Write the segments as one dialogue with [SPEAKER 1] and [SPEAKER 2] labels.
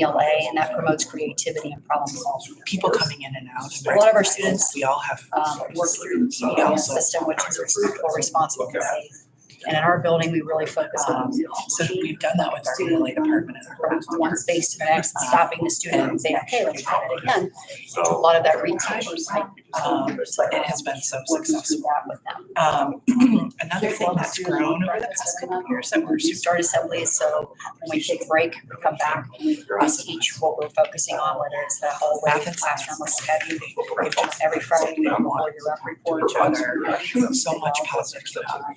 [SPEAKER 1] ELA, E and that promotes creativity and problem solving.
[SPEAKER 2] people coming in and out.
[SPEAKER 1] A lot of our students,
[SPEAKER 2] We all have.
[SPEAKER 1] Um, work through the ELA system, which is respectful, responsible, and safe. And in our building, we really focus on
[SPEAKER 2] So we've done that with our ELA department and our.
[SPEAKER 1] from one space to the next, and stopping the student and saying, okay, let's try it again. A lot of that reteaching, like,
[SPEAKER 2] Um, It has been so successful.
[SPEAKER 1] that with them.
[SPEAKER 2] Um, another thing that's grown over the past couple of years that we're
[SPEAKER 1] We
[SPEAKER 2] super.
[SPEAKER 1] start assemblies, so when we take a break, we come back, we teach what we're focusing on, whether it's the hallway,
[SPEAKER 2] Athens
[SPEAKER 1] classroom, or what have you.
[SPEAKER 2] We've done
[SPEAKER 1] Every Friday, we have all your rep
[SPEAKER 2] for
[SPEAKER 1] report
[SPEAKER 2] each other, so much positive.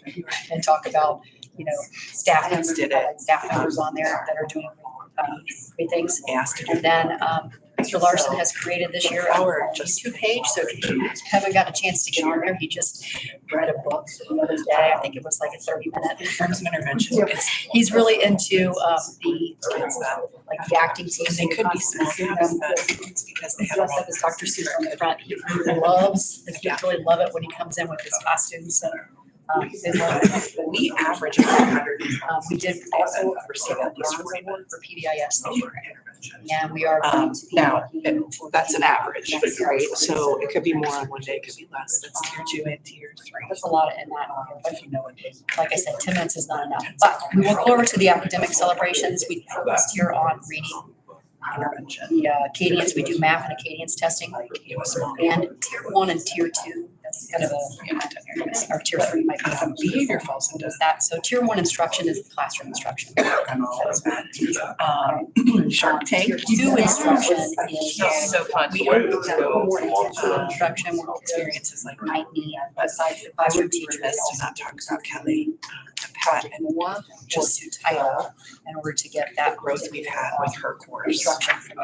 [SPEAKER 1] and talk about, you know, staff
[SPEAKER 2] Hands did it.
[SPEAKER 1] staff members on there that are doing um, great things.
[SPEAKER 2] Asked to do.
[SPEAKER 1] And then um, Mr. Larson has created this year our
[SPEAKER 2] Our just-
[SPEAKER 1] YouTube page, so if you haven't got a chance to get on there, he just read a book the other day, I think it was like a thirty minute.
[SPEAKER 2] Terms of intervention, it's,
[SPEAKER 1] He's really into um, the,
[SPEAKER 2] it's that,
[SPEAKER 1] like the acting team.
[SPEAKER 2] and they could be small
[SPEAKER 1] Constantine,
[SPEAKER 2] gaps,
[SPEAKER 1] um,
[SPEAKER 2] but it's because they have.
[SPEAKER 1] dressed up as Dr. Seuss on the front. He really loves, the kids really love it when he comes in with his costumes and um, they love it.
[SPEAKER 2] We average a hundred.
[SPEAKER 1] Um, We did also
[SPEAKER 2] Receive
[SPEAKER 1] receive a
[SPEAKER 2] at least
[SPEAKER 1] bronze
[SPEAKER 2] forty
[SPEAKER 1] award for PBIS this year.
[SPEAKER 2] intervention.
[SPEAKER 1] And we are.
[SPEAKER 2] Um,
[SPEAKER 1] going to be
[SPEAKER 2] now,
[SPEAKER 1] looking for
[SPEAKER 2] That's an
[SPEAKER 1] the-
[SPEAKER 2] average,
[SPEAKER 1] Yes.
[SPEAKER 2] right? So it could be more on one day, it could be less. That's tier two and tier three.
[SPEAKER 1] There's a lot in that, but you know, like I said, ten minutes is not enough. But we will go over to the academic celebrations. We focused here on reading.
[SPEAKER 2] Intervention.
[SPEAKER 1] The uh, Acadians, we do math and Acadians testing.
[SPEAKER 2] It was small.
[SPEAKER 1] And tier one and tier two, that's kind of a, or tier three might be
[SPEAKER 2] Um,
[SPEAKER 1] some
[SPEAKER 2] Behavior falls into
[SPEAKER 1] does that. So tier one instruction is classroom instruction.
[SPEAKER 2] um, Shark Tank.
[SPEAKER 1] Two instruction is. uh,
[SPEAKER 2] It's so fun.
[SPEAKER 3] The
[SPEAKER 2] We
[SPEAKER 3] way
[SPEAKER 2] always
[SPEAKER 3] this
[SPEAKER 2] have
[SPEAKER 3] goes,
[SPEAKER 2] more
[SPEAKER 3] long
[SPEAKER 2] um,
[SPEAKER 3] term,
[SPEAKER 1] Instruction will experience
[SPEAKER 2] experiences like.
[SPEAKER 1] might need, besides the
[SPEAKER 2] I
[SPEAKER 1] classroom
[SPEAKER 2] would be
[SPEAKER 1] teacher.
[SPEAKER 2] remiss to not talk about Kelly and Pat and
[SPEAKER 1] More or
[SPEAKER 2] just
[SPEAKER 1] to title in order to get
[SPEAKER 2] that
[SPEAKER 1] that
[SPEAKER 2] growth we've had with her course.
[SPEAKER 1] instruction.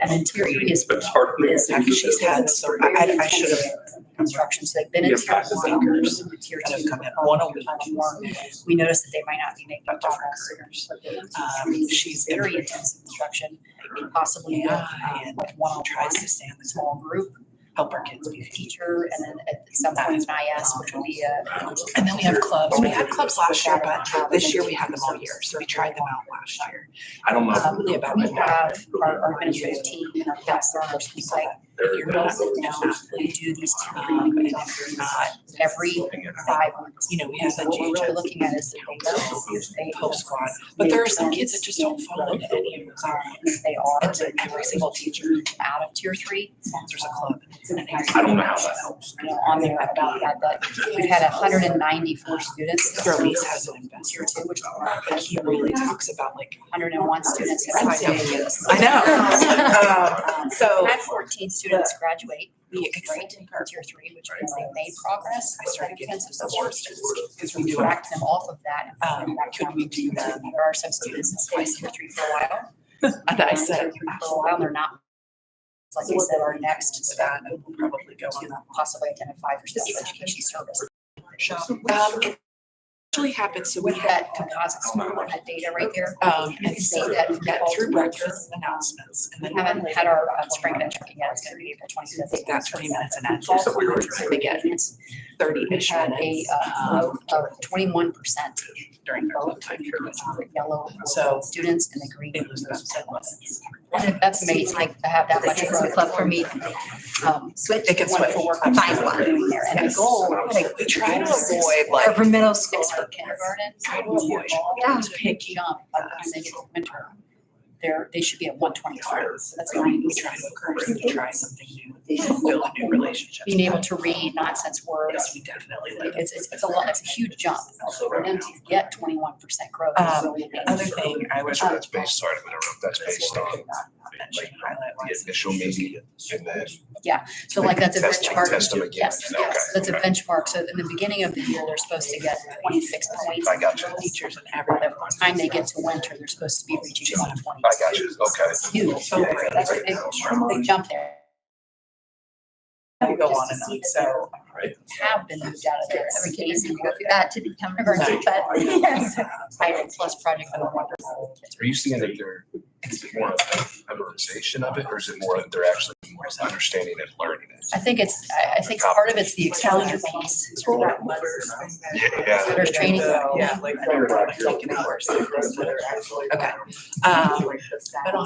[SPEAKER 1] And then tier three is.
[SPEAKER 3] It's hard for me.
[SPEAKER 1] is
[SPEAKER 3] to
[SPEAKER 2] actually
[SPEAKER 3] think
[SPEAKER 2] had so- I- I- I should've-
[SPEAKER 1] Instruction, so they've been in
[SPEAKER 3] Yeah,
[SPEAKER 1] tier
[SPEAKER 3] practice
[SPEAKER 1] one,
[SPEAKER 2] thinkers
[SPEAKER 1] tier
[SPEAKER 2] that have
[SPEAKER 1] two.
[SPEAKER 2] come in one a week.
[SPEAKER 1] We noticed that they might not be making
[SPEAKER 2] But different
[SPEAKER 1] progress.
[SPEAKER 2] careers. Um, she's
[SPEAKER 1] Very
[SPEAKER 2] very,
[SPEAKER 1] intense instruction, possibly with,
[SPEAKER 2] yeah,
[SPEAKER 1] um,
[SPEAKER 2] and
[SPEAKER 1] with one on
[SPEAKER 2] tries to stay on the
[SPEAKER 1] small group,
[SPEAKER 2] help our kids be.
[SPEAKER 1] teacher, and then at some point an IS, which will be uh, a.
[SPEAKER 2] And then we have clubs. We had clubs last year, but this year we had them all year, so we tried them out last year.
[SPEAKER 3] I don't know.
[SPEAKER 1] Um,
[SPEAKER 2] Probably about
[SPEAKER 1] We
[SPEAKER 2] a month.
[SPEAKER 1] have our, our administrative team and our task force, it's like,
[SPEAKER 3] They're-
[SPEAKER 1] if you're not
[SPEAKER 3] they're-
[SPEAKER 1] sitting down, we do these two
[SPEAKER 2] Um, and if you're not,
[SPEAKER 1] every
[SPEAKER 3] looking at-
[SPEAKER 1] five months.
[SPEAKER 2] you know, we have that
[SPEAKER 1] What we're really
[SPEAKER 2] GHS
[SPEAKER 1] looking at is the data.
[SPEAKER 2] Pope squad, but there are some kids that just don't follow any of those.
[SPEAKER 1] They are.
[SPEAKER 2] And so every single teacher
[SPEAKER 1] Out of tier three.
[SPEAKER 2] sponsors a club.
[SPEAKER 3] I don't know how that helps.
[SPEAKER 1] You know, on there about that, but we've had hundred and ninety-four students. this year.
[SPEAKER 2] Gurley's has an
[SPEAKER 1] Tier
[SPEAKER 2] investor,
[SPEAKER 1] two, which are
[SPEAKER 2] but he really talks about like.
[SPEAKER 1] hundred and one students. have
[SPEAKER 2] Friends
[SPEAKER 1] signed
[SPEAKER 2] down
[SPEAKER 1] up.
[SPEAKER 2] with us. I know. Um, So
[SPEAKER 1] We Had fourteen students graduate,
[SPEAKER 2] we
[SPEAKER 1] right,
[SPEAKER 2] accepted her.
[SPEAKER 1] in tier three, which means they made progress.
[SPEAKER 2] I started getting
[SPEAKER 1] Intensive
[SPEAKER 2] some
[SPEAKER 1] support
[SPEAKER 2] sources
[SPEAKER 1] students,
[SPEAKER 2] because we
[SPEAKER 1] we
[SPEAKER 2] do it.
[SPEAKER 1] direct them off of that. and put them
[SPEAKER 2] Um,
[SPEAKER 1] back
[SPEAKER 2] could
[SPEAKER 1] down
[SPEAKER 2] we
[SPEAKER 1] to
[SPEAKER 2] do
[SPEAKER 1] tier
[SPEAKER 2] that?
[SPEAKER 1] two. There are some students that stay in tier three for a while.
[SPEAKER 2] And I said,
[SPEAKER 1] Tier three For a while, they're not. Like I said, our next step
[SPEAKER 2] that and we'll probably go on
[SPEAKER 1] to
[SPEAKER 2] that
[SPEAKER 1] possibly identify for special education service.
[SPEAKER 2] shop. Um, it actually happened, so we
[SPEAKER 1] With
[SPEAKER 2] had,
[SPEAKER 1] that composite score, with that data right there,
[SPEAKER 2] um,
[SPEAKER 1] you
[SPEAKER 2] and
[SPEAKER 1] can see
[SPEAKER 2] so
[SPEAKER 1] that
[SPEAKER 2] we got through breakfast announcements and
[SPEAKER 1] we
[SPEAKER 2] then
[SPEAKER 1] haven't had our uh, spring bench yet, it's gonna be April twenty-fifth.
[SPEAKER 2] that's twenty minutes and that's
[SPEAKER 3] So we were-
[SPEAKER 2] we get thirty-ish
[SPEAKER 1] Had a
[SPEAKER 2] minutes
[SPEAKER 1] uh,
[SPEAKER 2] um,
[SPEAKER 1] low of twenty-one percent
[SPEAKER 2] during our lunch time period.
[SPEAKER 1] yellow
[SPEAKER 2] So-
[SPEAKER 1] students and the green.
[SPEAKER 2] It was about ten minutes.
[SPEAKER 1] And that's amazing, like to have that much of a club for me. um, Switch.
[SPEAKER 2] It can
[SPEAKER 1] one
[SPEAKER 2] switch.
[SPEAKER 1] For work, find one doing there, and the
[SPEAKER 2] Yes.
[SPEAKER 1] goal.
[SPEAKER 2] Like, we try to avoid like.
[SPEAKER 1] For middle school. For kindergarten.
[SPEAKER 2] Try to avoid.
[SPEAKER 1] Yeah. Big jump, by the time they get to winter, they're, they should be at one twenty-five. That's
[SPEAKER 2] We
[SPEAKER 1] ninety.
[SPEAKER 2] try to encourage them to try something new, build new relationships.
[SPEAKER 1] Being able to read nonsense words,
[SPEAKER 2] Yes, we definitely live.
[SPEAKER 1] it's, it's, it's a lot, it's a huge jump.
[SPEAKER 3] Also,
[SPEAKER 1] For
[SPEAKER 3] right
[SPEAKER 1] them
[SPEAKER 3] now.
[SPEAKER 1] to get twenty-one percent growth is really
[SPEAKER 2] Other
[SPEAKER 1] amazing.
[SPEAKER 2] thing I would.
[SPEAKER 3] So that's based, sorry, I'm interrupt, Uh, that's based on
[SPEAKER 2] Mention highlight
[SPEAKER 3] the
[SPEAKER 2] was-
[SPEAKER 3] initial meeting and then.
[SPEAKER 1] So like that's a
[SPEAKER 3] test-
[SPEAKER 1] benchmark.
[SPEAKER 3] Test them again.
[SPEAKER 1] Yes,
[SPEAKER 3] Okay,
[SPEAKER 1] yes, that's a
[SPEAKER 3] okay.
[SPEAKER 1] benchmark. So in the beginning of the year, they're supposed to get twenty-six points.
[SPEAKER 3] I got you.
[SPEAKER 2] Teachers and
[SPEAKER 1] By
[SPEAKER 2] everyone.
[SPEAKER 1] the time they get to winter, they're supposed to be reaching one twenty.
[SPEAKER 3] I got you, okay.
[SPEAKER 1] Huge.
[SPEAKER 2] So great.
[SPEAKER 1] That's a big, big jump there.
[SPEAKER 2] We go on and on, so.
[SPEAKER 1] Have been moved out of there. Every
[SPEAKER 4] Everything is
[SPEAKER 1] case
[SPEAKER 4] going to go through that to become an emergency,
[SPEAKER 2] Right.
[SPEAKER 4] but yes.
[SPEAKER 1] private plus project for the wonderful. kids.
[SPEAKER 3] Are you seeing that they're, is it more of a memorization of it or is it more that they're actually more understanding and learning it?
[SPEAKER 1] I think it's, I, I think part of it's the exposure piece.
[SPEAKER 3] Yeah.
[SPEAKER 1] There's training.
[SPEAKER 2] Yeah, like. they're like taking hours. Okay. Um, but